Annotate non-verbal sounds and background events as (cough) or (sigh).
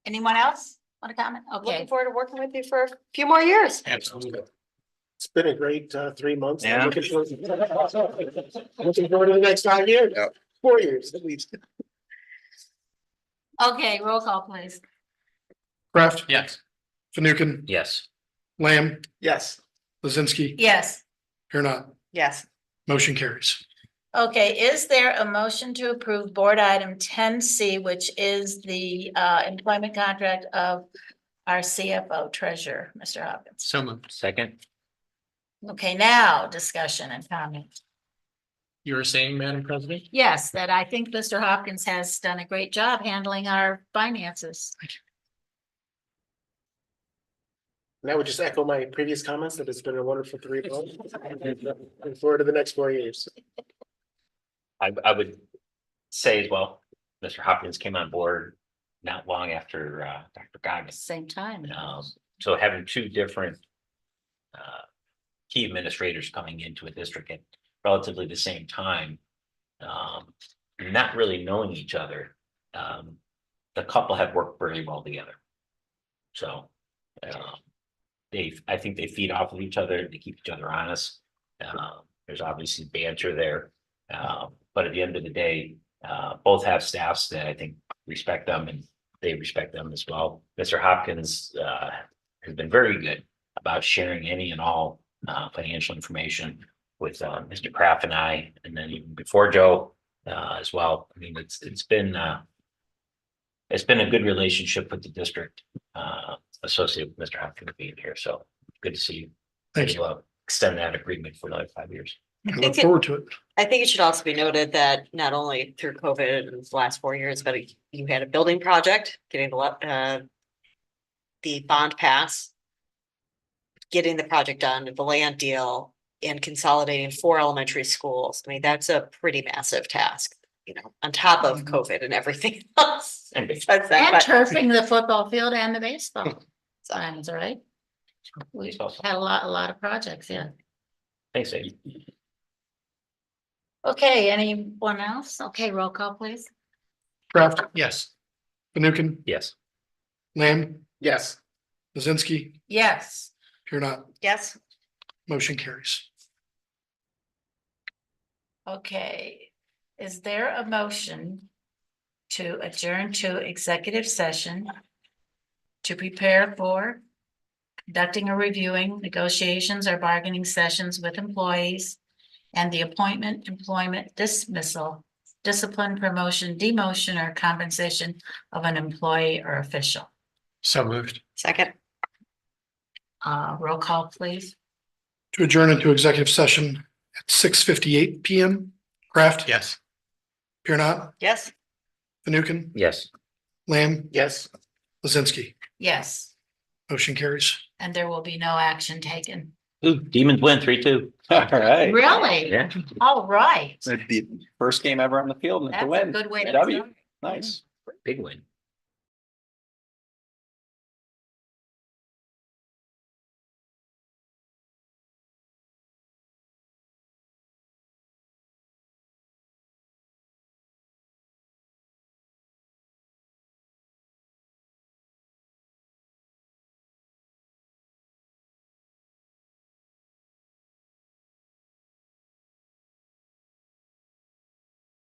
Anyone else want to comment? Okay. Looking forward to working with you for a few more years. Absolutely. It's been a great uh three months. I'm Yeah. Looking forward looking forward to the next five years, Yep. four years at least. Okay, roll call please. Craft, Yes. Fanukin, Yes. Lamb, Yes. Lizinski, Yes. here not, Yes. motion carries. Okay, is there a motion to approve board item ten C, which is the uh employment contract of our CFO treasurer, Mr. Hopkins? So moved. Second, Okay, now discussion and comment. you were saying, Madam President? Yes, that I think Mr. Hopkins has done a great job handling our finances. And I would just echo my previous comments that it's been a wonderful three months. Looking forward to the next four years. I, I would say as well, Mr. Hopkins came on board not long after, uh, Dr. Goggins. Same time. Um, so having two different, uh, key administrators coming into a district at relatively the same time, um, not really knowing each other, um, the couple have worked really well together. So, um, they, I think they feed off of each other, they keep each other honest. Um, there's obviously banter there. Um, but at the end of the day, uh, both have staffs that I think respect them and they respect them as well. Mr. Hopkins, uh, has been very good about sharing any and all, uh, financial information with, uh, Mr. Kraft and I, and then even before Joe, uh, as well. I mean, it's, it's been, uh, it's been a good relationship with the district, uh, associated with Mr. Hopkins being here. So good to see you. Thank you. We'll uh, Extend that agreement for another five years. I look forward to it. I think it should also be noted that not only through COVID in the last four years, but you had a building project, getting the, lo- uh, the bond pass, getting the project done, the land deal, and consolidating four elementary schools. I mean, that's a pretty massive task, you know, on top of COVID and everything (laughs) else. And That's that, And but- turfing the football field and the baseball signs, all right? We've Baseball sign. had a lot, a lot of projects, yeah. Thanks, Abe. Okay, anyone else? Okay, roll call please. Craft, Yes. Fanukin, Yes. Lamb, Yes. Lizinski, Yes. here not, Yes. motion carries. Okay, is there a motion to adjourn to executive session to prepare for conducting or reviewing negotiations or bargaining sessions with employees and the appointment, employment dismissal, discipline, promotion, demotion, or compensation of an employee or official? So moved. Second, Uh, roll call, please. To adjourn into executive session at six fifty-eight PM. Craft, Yes. here not, yes. Fanukin, Yes. Lamb, Yes. Lizinski, Yes, motion carries. and there will be no action taken. Ooh, Demons win three, two. All right. Really? Yeah. All right. It's the first game ever on the field and it's That's a a win. good way to. W. start. Nice. Big win.